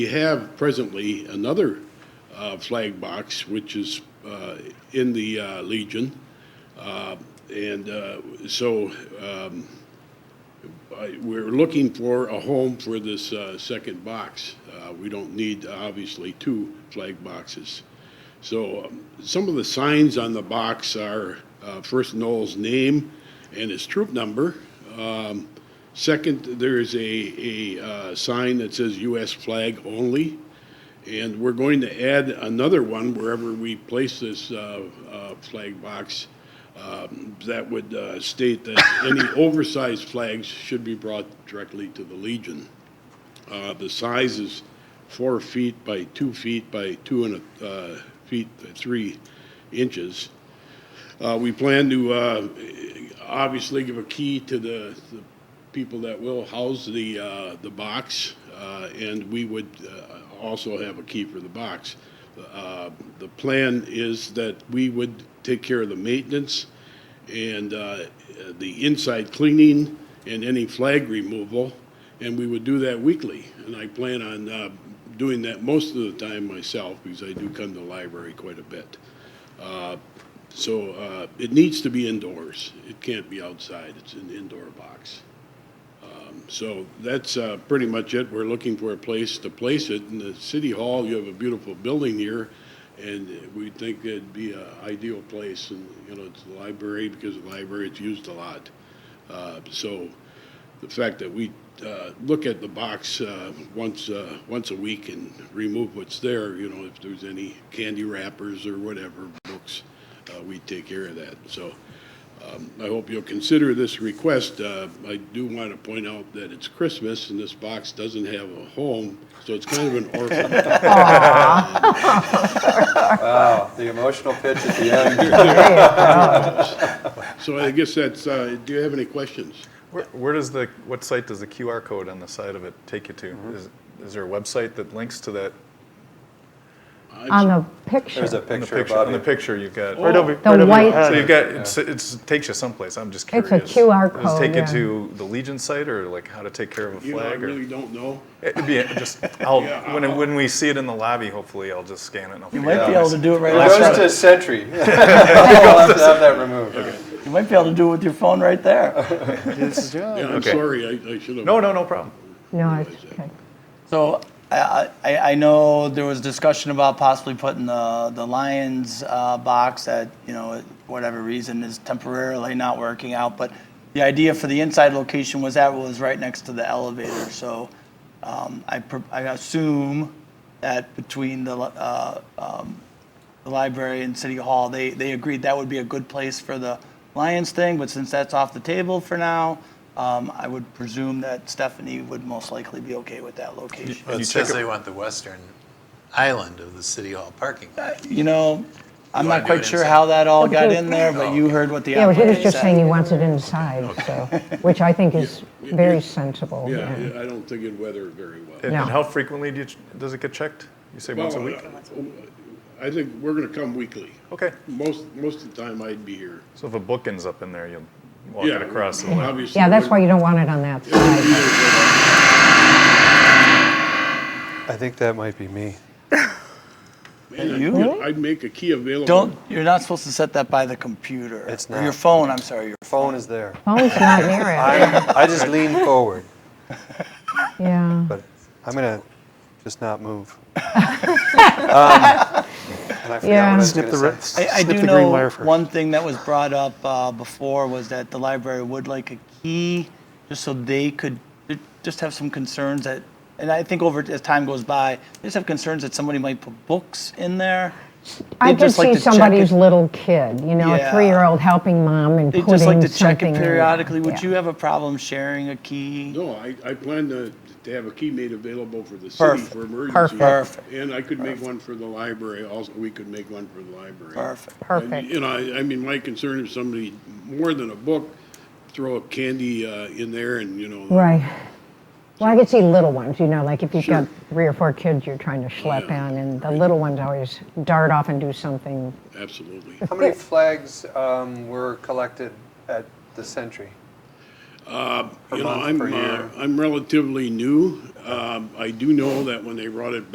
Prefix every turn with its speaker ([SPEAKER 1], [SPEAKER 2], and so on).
[SPEAKER 1] We have presently another uh, flag box, which is uh, in the uh, Legion. Uh, And uh, so um, I- we're looking for a home for this uh, second box. Uh, We don't need, obviously, two flag boxes. So um, some of the signs on the box are uh, first Noel's name and his troop number. Um, Second, there is a, a uh, sign that says US flag only. And we're going to add another one wherever we place this uh, uh, flag box um, that would uh, state that any oversized flags should be brought directly to the Legion. Uh, The size is four feet by two feet by two and a uh, feet, three inches. Uh, We plan to uh, obviously give a key to the the people that will house the, uh, the box, uh, and we would uh, also have a key for the box. Uh, The plan is that we would take care of the maintenance and uh, the inside cleaning and any flag removal, and we would do that weekly. And I plan on uh, doing that most of the time myself, because I do come to the library quite a bit. Uh, So uh, it needs to be indoors. It can't be outside. It's an indoor box. Um, So that's uh, pretty much it. We're looking for a place to place it. In the city hall, you have a beautiful building here, and we think it'd be an ideal place. And, you know, it's the library, because the library, it's used a lot. Uh, So the fact that we uh, look at the box uh, once, uh, once a week and remove what's there, you know, if there's any candy wrappers or whatever, books, uh, we take care of that. So um, I hope you'll consider this request. Uh, I do want to point out that it's Christmas and this box doesn't have a home, so it's kind of an orphan.
[SPEAKER 2] Wow, the emotional pitch at the end.
[SPEAKER 1] So I guess that's, uh, do you have any questions?
[SPEAKER 3] Where, where does the, what site does the QR code on the side of it take you to? Is, is there a website that links to that?
[SPEAKER 4] on the picture.
[SPEAKER 2] There's a
[SPEAKER 3] In the
[SPEAKER 2] picture,
[SPEAKER 3] On
[SPEAKER 2] Bobby.
[SPEAKER 3] the picture, you've got.
[SPEAKER 5] Right over,
[SPEAKER 4] The
[SPEAKER 5] right over
[SPEAKER 4] white-
[SPEAKER 5] your head.
[SPEAKER 3] So you've got, it's, it's, it takes you someplace, I'm just
[SPEAKER 4] It's
[SPEAKER 3] curious.
[SPEAKER 4] a QR
[SPEAKER 3] Does it take
[SPEAKER 4] code,
[SPEAKER 3] you to the Legion site or like how to take care of a
[SPEAKER 1] You know, I
[SPEAKER 3] flag?
[SPEAKER 1] really
[SPEAKER 3] or
[SPEAKER 1] don't know.
[SPEAKER 3] It'd be just, I'll,
[SPEAKER 1] Yeah,
[SPEAKER 3] when, it- when we see it in the lobby, hopefully I'll just scan it and I'll
[SPEAKER 5] You
[SPEAKER 3] figure it
[SPEAKER 2] Yeah.
[SPEAKER 5] might
[SPEAKER 3] out.
[SPEAKER 5] be able to do it right
[SPEAKER 2] It
[SPEAKER 5] outside.
[SPEAKER 2] goes to Sentry. You'll have to have that removed.
[SPEAKER 5] You might be able to do it with your phone right there.
[SPEAKER 4] Oh.
[SPEAKER 1] Yeah, I'm
[SPEAKER 3] Okay.
[SPEAKER 1] sorry, I I should have.
[SPEAKER 3] No, no, no problem.
[SPEAKER 4] No, it's okay.
[SPEAKER 5] So I, I, I know there was discussion about possibly putting the, the Lions uh, box that, you know, whatever reason is temporarily not working out. But the idea for the inside location was that was right next to the elevator. So um, I, pr- I assume that between the, li- uh, um, the library and city hall, they, they agreed that would be a good place for the Lions thing, but since that's off the table for now, um, I would presume that Stephanie would most likely be okay with that location.
[SPEAKER 6] Well,
[SPEAKER 3] you
[SPEAKER 6] it
[SPEAKER 3] check
[SPEAKER 6] says
[SPEAKER 3] it-
[SPEAKER 6] they want the western island of the city hall parking lot.
[SPEAKER 5] You know, I'm
[SPEAKER 6] You wanna
[SPEAKER 5] not
[SPEAKER 6] do
[SPEAKER 5] quite
[SPEAKER 6] it
[SPEAKER 5] sure
[SPEAKER 6] inside?
[SPEAKER 5] how that all
[SPEAKER 4] Okay.
[SPEAKER 5] got in there, but you heard what the
[SPEAKER 4] Yeah, but he was
[SPEAKER 5] applicant
[SPEAKER 4] just saying he
[SPEAKER 5] said.
[SPEAKER 4] wants it inside, so, which I think is very sensible.
[SPEAKER 1] Yeah, I don't think it'd weather very well.
[SPEAKER 3] And
[SPEAKER 4] No.
[SPEAKER 3] and how frequently do you, ch- does it get checked? You say once a
[SPEAKER 1] Well, uh,
[SPEAKER 3] week?
[SPEAKER 1] I think we're gonna come weekly.
[SPEAKER 3] Okay,
[SPEAKER 1] Most, most of the time I'd be here.
[SPEAKER 3] so if a book ends up in there, you'll walk it
[SPEAKER 1] Yeah,
[SPEAKER 3] across. the
[SPEAKER 1] well,
[SPEAKER 3] line.
[SPEAKER 1] Obviously.
[SPEAKER 4] Yeah, that's why you don't want it on that side.
[SPEAKER 2] I think that might be me.
[SPEAKER 5] You
[SPEAKER 1] I'd make a key available.
[SPEAKER 5] don't, you're not supposed to set that by the computer.
[SPEAKER 2] It's
[SPEAKER 5] Or your
[SPEAKER 2] not.
[SPEAKER 5] phone, I'm sorry, your
[SPEAKER 2] Phone is there.
[SPEAKER 4] Phone's not near it,
[SPEAKER 2] I just lean forward,
[SPEAKER 4] yeah.
[SPEAKER 2] but I'm gonna just not move. Um, And I
[SPEAKER 4] Yeah.
[SPEAKER 2] forgot what I was
[SPEAKER 4] Snip
[SPEAKER 2] gonna say.
[SPEAKER 5] I, I do know one thing that was brought up uh, before was that the library would like a key, just so they could ju- just have some concerns that, and I think over as time goes by, they just have concerns that somebody might put books in there.
[SPEAKER 4] I
[SPEAKER 5] They'd
[SPEAKER 4] could
[SPEAKER 5] just like
[SPEAKER 4] see
[SPEAKER 5] to check
[SPEAKER 4] somebody's
[SPEAKER 5] it-
[SPEAKER 4] little kid, you know, a
[SPEAKER 5] Yeah.
[SPEAKER 4] three-year-old helping mom and
[SPEAKER 5] They
[SPEAKER 4] putting
[SPEAKER 5] just
[SPEAKER 4] something
[SPEAKER 5] like
[SPEAKER 4] in
[SPEAKER 5] to check it
[SPEAKER 4] there.
[SPEAKER 5] periodically. Would
[SPEAKER 4] Yeah.
[SPEAKER 5] you have a problem sharing a key?
[SPEAKER 1] No, I, I plan to, to have a key made available for the city
[SPEAKER 5] Perfect.
[SPEAKER 1] for emergency.
[SPEAKER 4] Perfect.
[SPEAKER 5] Perfect.
[SPEAKER 1] And I could make one for the library, also, we could make one for the library.
[SPEAKER 5] Perfect.
[SPEAKER 1] And,
[SPEAKER 4] Perfect,
[SPEAKER 1] You know, I, I mean, my concern is somebody, more than a book, throw a candy, uh, in there and, you know.
[SPEAKER 4] right. Well, I could see little ones, you know, like if you've got three or four kids you're trying to schlep
[SPEAKER 1] Yeah.
[SPEAKER 4] in, and the little ones always dart off and do something.
[SPEAKER 1] Absolutely.
[SPEAKER 2] How many flags um, were collected at the Sentry?
[SPEAKER 1] You know,
[SPEAKER 2] month,
[SPEAKER 1] I'm,
[SPEAKER 2] per
[SPEAKER 1] uh,
[SPEAKER 2] year.
[SPEAKER 1] I'm relatively new. Um, I do know that when they brought it